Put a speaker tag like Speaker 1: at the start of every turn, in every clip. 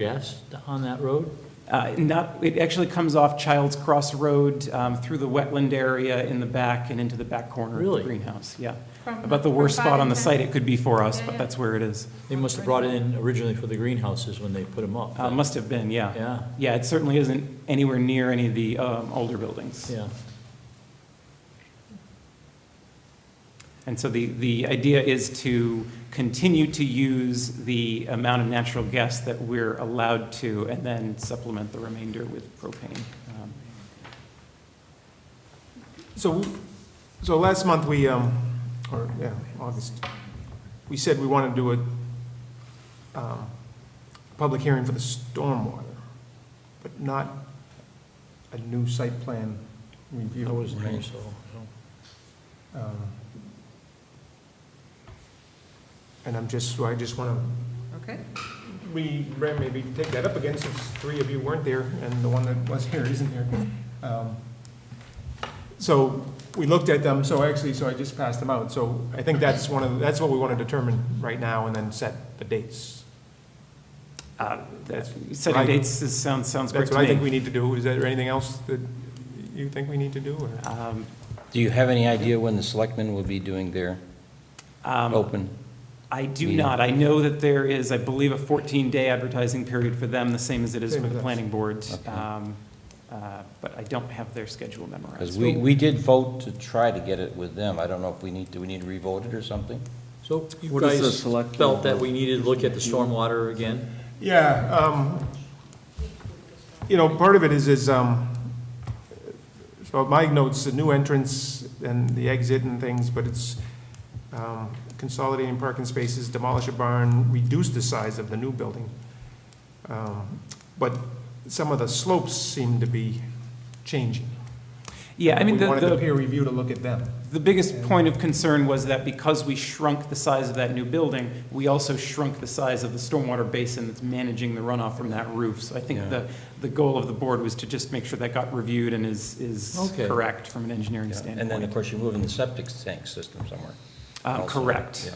Speaker 1: gas on that road?
Speaker 2: Uh, Not, it actually comes off Child's Cross Road um, through the wetland area in the back and into the back corner of
Speaker 1: Really?
Speaker 2: the greenhouse. Yeah.
Speaker 3: From-
Speaker 2: About the
Speaker 3: from
Speaker 2: worst
Speaker 3: five
Speaker 2: spot
Speaker 3: to
Speaker 2: on the
Speaker 3: 10.
Speaker 2: site it could be for us,
Speaker 3: Yeah,
Speaker 2: but
Speaker 3: yeah.
Speaker 2: that's where it is.
Speaker 1: They must have brought it in originally for the greenhouses when they put them up.
Speaker 2: Uh, Must have been, yeah.
Speaker 1: Yeah,
Speaker 2: Yeah, it certainly isn't anywhere near any of the um, older buildings.
Speaker 1: yeah.
Speaker 2: And so the, the idea is to continue to use the amount of natural gas that we're allowed to, and then supplement the remainder with propane. Um,
Speaker 4: So, so last month, we, um, or, yeah, August, we said we wanted to do a, um, public hearing for the stormwater, but not a new site plan review.
Speaker 1: I wasn't there, so.
Speaker 4: Um, And I'm just, so I just want
Speaker 3: Okay,
Speaker 4: to, we ran- maybe take that up again, since three of you weren't there, and the one that was here isn't here. Um, So we looked at them, so actually, so I just passed them out. So I think that's one of, that's what we want to determine right now, and then set the dates.
Speaker 2: uh, that's- Setting
Speaker 4: Right.
Speaker 2: dates is- sounds, sounds great
Speaker 4: That's
Speaker 2: to
Speaker 4: what I
Speaker 2: me.
Speaker 4: think we need to do. Is there anything else that you think we need to do, or?
Speaker 2: Um,
Speaker 5: Do you have any idea when the selectmen will be doing their
Speaker 2: um,
Speaker 4: Oh,
Speaker 5: open?
Speaker 2: I do
Speaker 5: meeting.
Speaker 2: not. I know that there is, I believe, a 14-day advertising period for them, the same as it is
Speaker 4: Same
Speaker 2: for
Speaker 4: as
Speaker 2: the
Speaker 4: us.
Speaker 2: planning board.
Speaker 5: Okay.
Speaker 2: Um, uh, But I don't have their schedule
Speaker 5: Because
Speaker 2: memorized.
Speaker 5: we, we did vote to try to get it with them. I don't know if we need, do we need to revote it or something?
Speaker 1: So you
Speaker 6: What is the
Speaker 1: guys
Speaker 6: select-
Speaker 1: felt that we needed to look at the stormwater again?
Speaker 4: Yeah, um, you know, part of it is, is, um, so my notes, the new entrance and the exit and things, but it's, um, consolidating parking spaces, demolish a barn, reduce the size of the new building. Um, But some of the slopes seem to be changing.
Speaker 2: Yeah, I mean,
Speaker 4: We
Speaker 2: the,
Speaker 4: wanted the
Speaker 2: the
Speaker 4: peer review to look at them.
Speaker 2: the biggest point of concern was that because we shrunk the size of that new building, we also shrunk the size of the stormwater basin that's managing the runoff from that roof. So I think
Speaker 5: Yeah.
Speaker 2: the, the goal of the board was to just make sure that got reviewed and is, is
Speaker 1: Okay.
Speaker 2: correct from an engineering standpoint.
Speaker 5: And then, of course, you're moving the septic tank system somewhere.
Speaker 2: Uh,
Speaker 5: also.
Speaker 2: Correct.
Speaker 5: Yeah.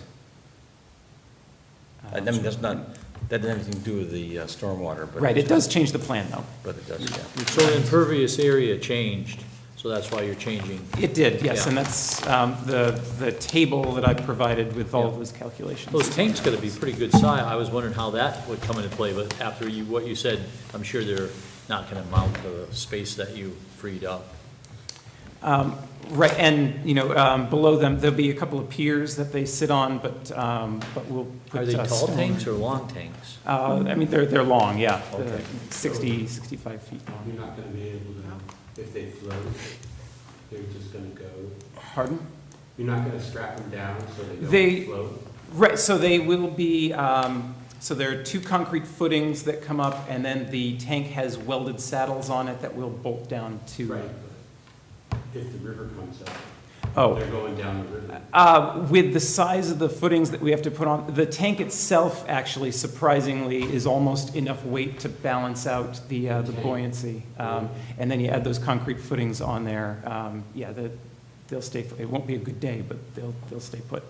Speaker 2: Uh,
Speaker 5: I mean, that's not, that doesn't have anything to do with the uh, stormwater, but.
Speaker 2: Right, it does change the plan, though.
Speaker 5: But it does, yeah.
Speaker 1: So the impervious area changed, so that's why you're changing.
Speaker 2: It did, yes, and
Speaker 1: Yeah.
Speaker 2: that's um, the, the table that I provided with all of
Speaker 1: Yeah.
Speaker 2: those calculations.
Speaker 1: Those tanks gotta be pretty good size. I was wondering how that would come into play, but after you, what you said, I'm sure they're not gonna mount the space that you freed up.
Speaker 2: Um, Right, and, you know, um, below them, there'll be a couple of piers that they sit on, but, um, but we'll put.
Speaker 1: Are they
Speaker 2: uh,
Speaker 1: tall
Speaker 2: stone.
Speaker 1: tanks or long tanks?
Speaker 2: Uh, I mean, they're, they're long, yeah, They're
Speaker 1: Okay.
Speaker 2: 60, 65 feet long.
Speaker 7: You're not gonna be able to, if they float, they're just gonna go,
Speaker 2: Pardon?
Speaker 7: you're not gonna strap them down so they
Speaker 2: They-
Speaker 7: don't float?
Speaker 2: Right, so they will be, um, so there are two concrete footings that come up, and then the tank has welded saddles on it that will bolt down to.
Speaker 7: Right, but if the river comes up,
Speaker 2: Oh,
Speaker 7: they're going down the river.
Speaker 2: Uh, With the size of the footings that we have to put on, the tank itself actually surprisingly is almost enough weight to balance out the, uh, the
Speaker 7: Okay.
Speaker 2: buoyancy. Um, And then you add those concrete footings on there, um, yeah, the, they'll stay, it won't be a good day, but they'll, they'll stay put.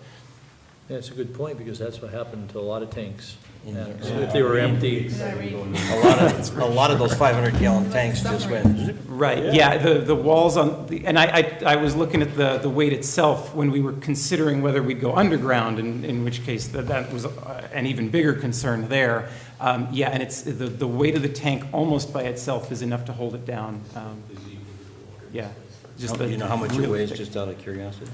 Speaker 1: That's a good point, because that's what happened to a lot of tanks.
Speaker 5: In
Speaker 1: And
Speaker 5: there.
Speaker 1: so If they were empty, Oh,
Speaker 5: A lot of, a lot of those 500 gallon tanks just went. zip.
Speaker 2: Right, yeah, the, the walls on, the and I, I, I was looking at the, the weight itself when we were considering whether we'd go underground, in, in which case that, that was uh, an even bigger concern there. Um, yeah, and it's, the, the weight of the tank almost by itself is enough to hold it down, um, yeah. just
Speaker 5: Do
Speaker 2: the-
Speaker 5: you know how much
Speaker 2: really
Speaker 5: it weighs,
Speaker 2: thick-
Speaker 5: just out of curiosity?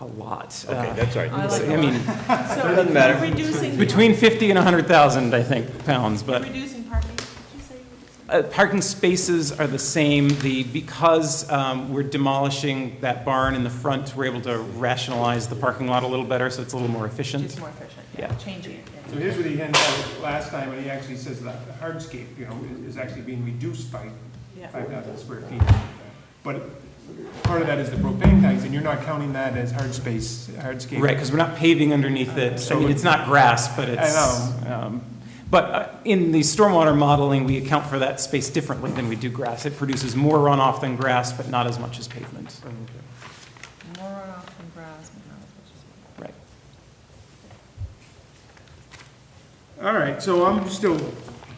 Speaker 2: A lot.
Speaker 5: Okay,
Speaker 2: Uh,
Speaker 5: that's all right.
Speaker 3: Oh, I like
Speaker 2: I mean,
Speaker 3: so
Speaker 5: Doesn't matter.
Speaker 3: reducing,
Speaker 2: between fifty and a hundred thousand, I think, pounds, but.
Speaker 3: reducing parking, did you say? you were-
Speaker 2: Uh, Parking spaces are the same. The, because um, we're demolishing that barn in the front, we're able to rationalize the parking lot a little better, so it's a little more efficient.
Speaker 3: Just more efficient,
Speaker 2: Yeah.
Speaker 3: yeah, changing it. yeah.
Speaker 4: So here's what he handed out last time, and he actually says that the hardscape, you know, is- is actually being reduced by
Speaker 3: Yeah,
Speaker 4: 5,000 square feet. But part of that is the propane tanks, and you're not counting that as hard space, hardscape.
Speaker 2: Right, because we're not paving underneath it. I mean, it's not grass, but it's. um, But uh, in the stormwater modeling, we account for that space differently than we do grass. It produces more runoff than grass, but not as much as pavement.
Speaker 3: more runoff from grass, but not as much as.
Speaker 2: Right.
Speaker 4: All right, so I'm still